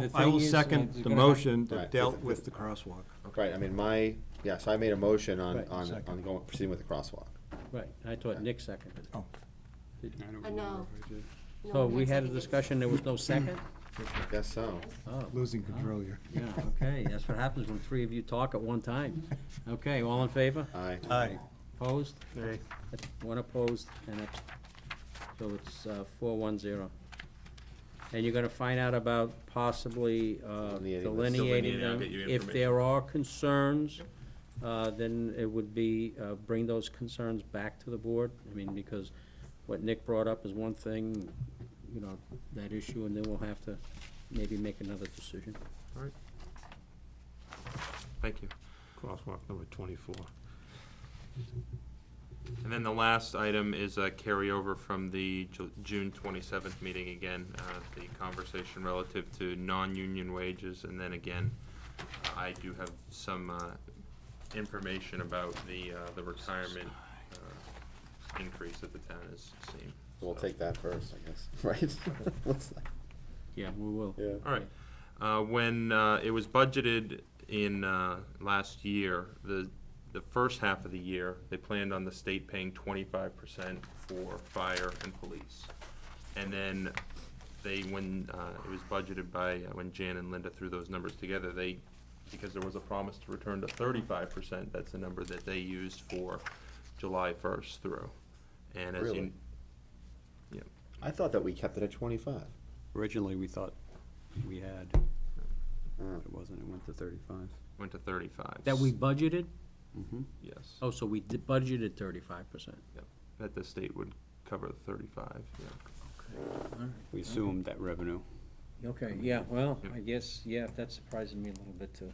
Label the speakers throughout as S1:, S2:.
S1: the
S2: will, I will
S1: thing is,
S2: second
S1: it's
S2: the
S1: gonna-
S2: motion that
S3: Right.
S2: dealt with the crosswalk.
S3: Right, I mean, my, yeah, so I made a motion on,
S2: Right,
S3: on,
S2: second.
S3: on going, proceeding with the crosswalk.
S1: Right, I thought Nick seconded it.
S2: Oh.
S4: I don't
S5: I know.
S4: remember.
S5: No
S1: So
S5: one
S1: we had a
S5: seconded.
S1: discussion, there was no second?
S3: I guess so.
S1: Oh,
S2: Losing control here.
S1: yeah, okay, that's what happens when three of you talk at one time. Okay, all in favor?
S3: Aye.
S2: Aye.
S1: Opposed?
S2: Aye.
S1: One opposed, and it's, so it's uh, four one zero. And you're gonna find out about possibly uh,
S3: Delineating this.
S1: delineating
S6: Delineating, I'll
S1: them.
S6: get you
S1: If there are concerns, uh, then it would be, uh, bring those concerns back to the board. I mean, because what Nick brought up is one thing, you know, that issue, and then we'll have to maybe make another decision.
S6: Thank you. Crosswalk number twenty-four. And then the last item is a carryover from the Ju- June twenty-seventh meeting again, uh, the conversation relative to non-union wages. And then again, I do have some, uh, information about the, uh, the retirement, uh, increase that the town has seen.
S3: We'll
S6: So-
S3: take that first, I guess, right? What's that?
S1: Yeah, we will.
S3: Yeah.
S6: All right. Uh, When uh, it was budgeted in uh, last year, the, the first half of the year, they planned on the state paying twenty-five percent for fire and police. And then they, when uh, it was budgeted by, uh, when Jan and Linda threw those numbers together, they, because there was a promise to return to thirty-five percent, that's the number that they used for July first through. And as you,
S3: Really? I thought that we kept it at twenty-five.
S4: Originally, we thought we had,
S3: Oh.
S4: but it wasn't, it went to thirty-five.
S6: went to thirty-five.
S1: That we budgeted?
S4: Mhm.
S6: Yes.
S1: Oh, so we did budgeted thirty-five percent.
S6: that the state would cover the thirty-five, yeah.
S4: We assumed that revenue.
S1: Okay, yeah, well,
S6: Yeah.
S1: I guess, yeah, that surprises me a little bit too.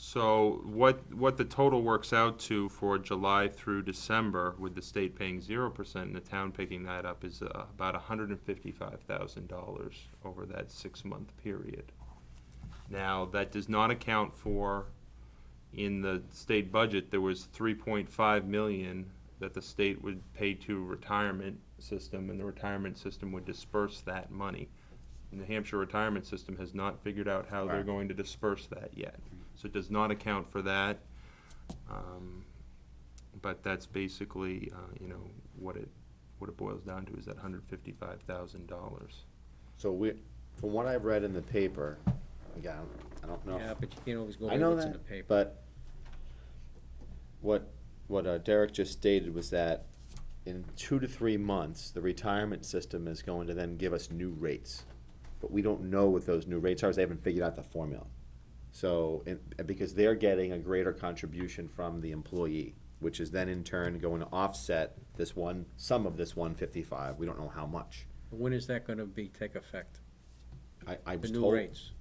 S6: So what, what the total works out to for July through December, with the state paying zero percent and the town picking that up, is uh, about hundred and fifty-five thousand dollars over that six-month period. Now, that does not account for, in the state budget, there was three point five million that the state would pay to retirement system, and the retirement system would disperse that money. New Hampshire retirement system has not figured out how they're
S3: Right.
S6: going to disperse that yet, so it does not account for that. Um, But that's basically, uh, you know, what it, what it boils down to is that hundred fifty-five thousand dollars.
S3: So we, from what I've read in the paper, again, I don't know. if-
S1: Yeah, but you can't always go
S3: I
S1: with
S3: know
S1: what's in the
S3: that,
S1: paper.
S3: but what, what uh, Derek just stated was that in two to three months, the retirement system is going to then give us new rates. But we don't know what those new rates are, 'cause they haven't figured out the formula. So, and, and because they're getting a greater contribution from the employee, which is then in turn going to offset this one, some of this one fifty-five, we don't know how much.
S1: When is that gonna be, take effect?
S3: I, I
S1: The
S3: was
S1: new
S3: told,
S1: rates?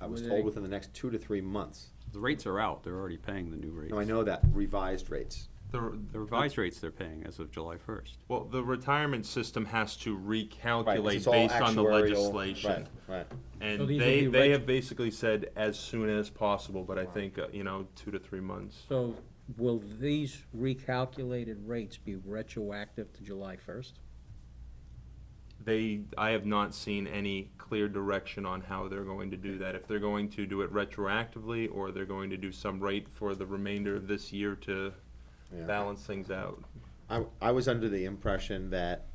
S3: I was
S1: When
S3: told
S1: they-
S3: within the next two to three months.
S4: The rates are out, they're already paying the new rates.
S3: No, I know that, revised rates.
S4: The revised rates they're paying as of July first.
S6: Well, the retirement system has to
S3: Right, 'cause
S6: recalculate
S3: it's all
S6: based on the
S3: actuarial-
S6: legislation.
S3: Right, right.
S1: So
S6: And
S1: these will
S6: they,
S1: be
S6: they
S1: reg-
S6: have basically said as soon as possible, but I think, uh, you know, two to three months.
S1: So will these recalculated rates be retroactive to July first?
S6: They, I have not seen any clear direction on how they're going to do that. If they're going to do it retroactively, or they're going to do some rate for the remainder of this year to
S3: Yeah.
S6: balance things out.
S3: I, I was under the impression that,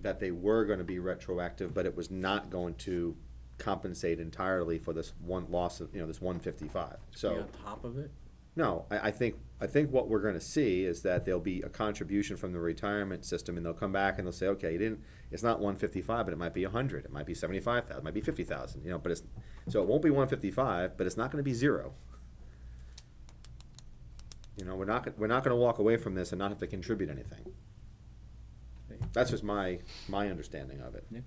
S3: that they were gonna be retroactive, but it was not going to compensate entirely for this one loss of, you know, this one fifty-five.
S1: Be
S3: So,
S1: on top of it?
S3: no, I, I think, I think what we're gonna see is that there'll be a contribution from the retirement system, and they'll come back and they'll say, okay, you didn't, it's not one fifty-five, but it might be a hundred, it might be seventy-five thousand, it might be fifty thousand, you know, but it's, so it won't be one fifty-five, but it's not gonna be zero. You know, we're not, gon- we're not gonna walk away from this and not have to contribute anything. That's just my, my understanding of it.
S1: Nick?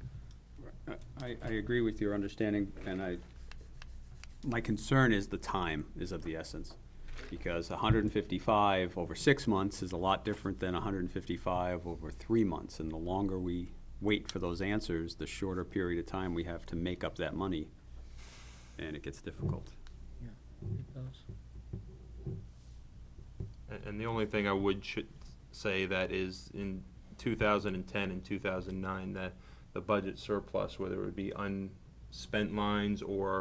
S4: I, I agree with your understanding, and I, my concern is the time is of the essence. Because hundred and fifty-five over six months is a lot different than hundred and fifty-five over three months. And the longer we wait for those answers, the shorter period of time we have to make up that money. And it gets difficult.
S1: It does.
S6: A- And the only thing I would should say that is in 2010 and 2009, that the budget surplus, whether it would be unspent lines or